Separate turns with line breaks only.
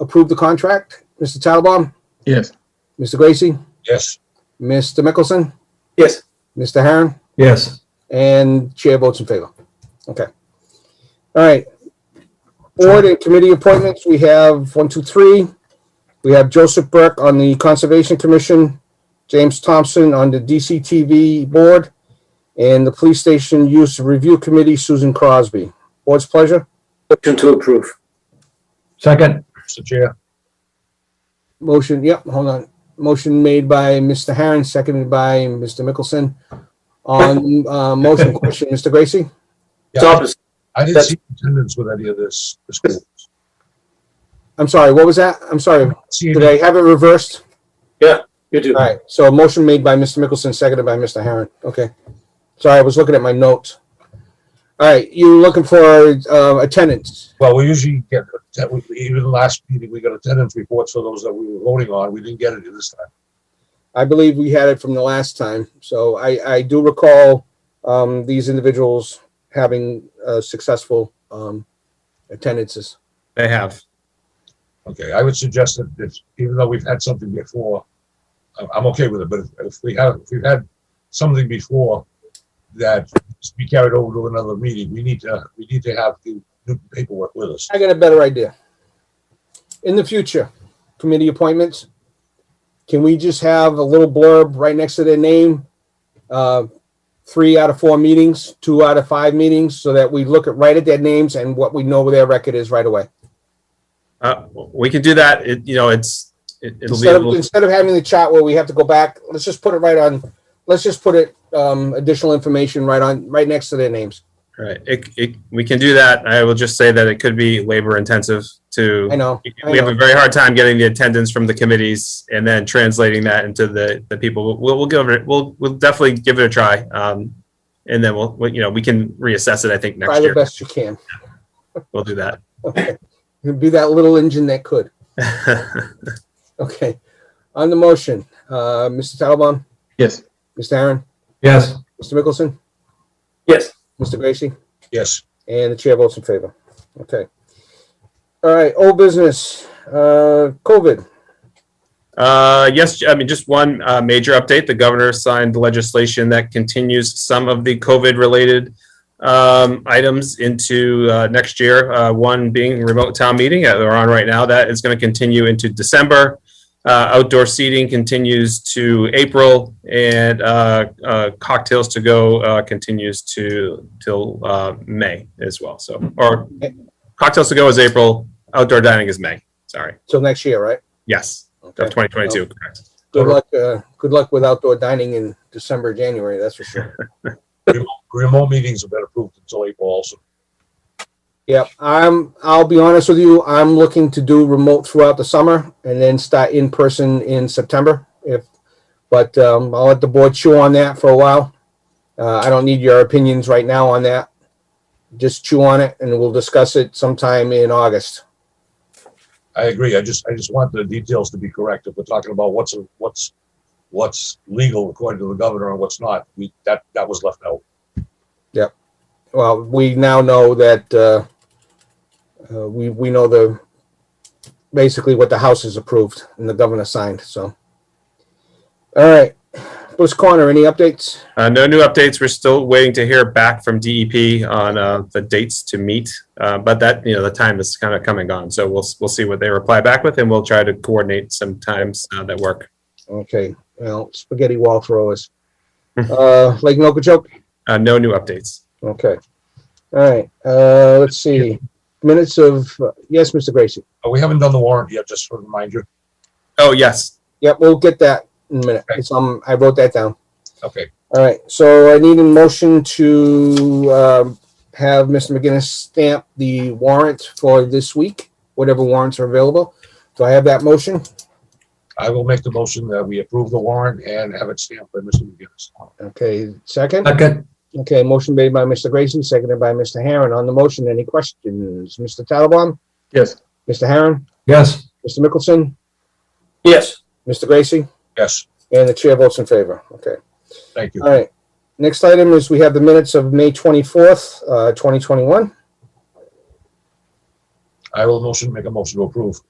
approve the contract? Mr. Tattelbaum?
Yes.
Mr. Gracie?
Yes.
Mr. Mickelson?
Yes.
Mr. Herron?
Yes.
And chair votes in favor. Okay. All right. Board and committee appointments, we have one, two, three. We have Joseph Burke on the Conservation Commission, James Thompson on the DCTV Board, and the Police Station Use Review Committee, Susan Crosby. Board's pleasure.
Motion to approve.
Second,
Mr. Chair.
Motion, yep, hold on. Motion made by Mr. Herron, seconded by Mr. Mickelson. On, uh, motion question, Mr. Gracie?
It's opposite.
I didn't see attendance with any of this. this group.
I'm sorry, what was that? I'm sorry.
See
Did
any-
I have it reversed?
You do.
All right, so a motion made by Mr. Mickelson, seconded by Mr. Herron. Okay. Sorry, I was looking at my notes. All right, you looking for uh, attendance?
Well, we usually get, that we- even last meeting, we got attendance reports for those that we were voting on. We didn't get any this time.
I believe we had it from the last time, so I, I do recall um, these individuals having uh, successful um, attendances.
They have.
Okay, I would suggest that if, even though we've had something before, I'm, I'm okay with it, but if, if we have, if we've had something before that is to be carried over to another meeting, we need to, we need to have the new paperwork with us.
I got a better idea. In the future, committee appointments, can we just have a little blurb right next to their name? Uh, Three out of four meetings, two out of five meetings, so that we look at, right at their names and what we know their record is right away.
Uh, we can do that. It, you know, it's, it, it'll be
Instead
a
of,
little,
instead of having the chat where we have to go back, let's just put it right on, let's just put it, um, additional information right on, right next to their names.
right. It, it, we can do that. I will just say that it could be labor intensive to.
I know, I
We have a
know.
very hard time getting the attendance from the committees and then translating that into the, the people. We'll, we'll give it, we'll, we'll definitely give it a try. Um, and then we'll, we- you know, we can reassess it, I think,
Try
next
the
year.
best you can.
We'll do that.
Okay. Be that little engine that could. Okay, on the motion, uh, Mr. Tattelbaum,
Yes.
Mr. Aaron,
yes,
Mr. Mickelson,
Yes.
Mr. Gracie,
Yes,
and the chair votes in favor. Okay. All right, old business, uh, COVID.
Uh, yes, I mean, just one uh, major update. The governor signed legislation that continues some of the COVID related um, items into uh, next year. Uh, one being remote town meeting uh, they're on right now. That is going to continue into December. Uh, outdoor seating continues to April, and uh, uh, cocktails to go uh, continues to till uh, May as well. So, or cocktails to go is April. Outdoor dining is May. Sorry.
Till next year, right?
Yes, of
Okay.
2022. Correct.
Good luck, uh, good luck with outdoor dining in December, January, that's for sure.
remote meetings have been approved until April also.
Yep, I'm, I'll be honest with you, I'm looking to do remote throughout the summer and then start in person in September if, but, um, I'll let the board chew on that for a while. Uh, I don't need your opinions right now on that. Just chew on it and we'll discuss it sometime in August.
I agree. I just, I just want the details to be correct. If we're talking about what's, what's, what's legal according to the governor and what's not, we, that, that was left out.
Well, we now know that, uh, uh, we, we know the, basically what the House has approved and the governor signed, so. All right, Bruce Corner, any updates?
Uh, no new updates. We're still waiting to hear back from DEP on uh, the dates to meet, uh, but that you know the time is kind of coming on. So we'll we'll see what they reply back with, and we'll try to coordinate some times uh, that work.
Okay, well, spaghetti wall throwers. Uh, Lake Nokichoke?
Uh, no new updates.
Okay. All right, uh, let's see. Minutes of, uh, yes, Mr. Gracie.
Uh, We haven't done the warrant yet, just to remind you.
Oh yes,
Yep, we'll get that in a minute. It's, um, I wrote that down.
Okay,
All right, so I need a motion to, um, have Mr. McGinnis stamp the warrant for this week, whatever warrants are available. Do I have that motion?
I will make the motion that we approve the warrant and have it stamped by Mr. McGinnis.
Okay, second?
second,
Okay, motion made by Mr. Gracie, seconded by Mr. Herron. On the motion, any questions? Mr. Tattelbaum?
Yes.
Mr. Herron?
yes,
Mr. Mickelson?
Yes.
Mr. Gracie?
Yes,
And the chair votes in favor. Okay.
thank you.
All right. Next item is we have the minutes of May 24th, uh, 2021.
I will motion, make a motion to approve.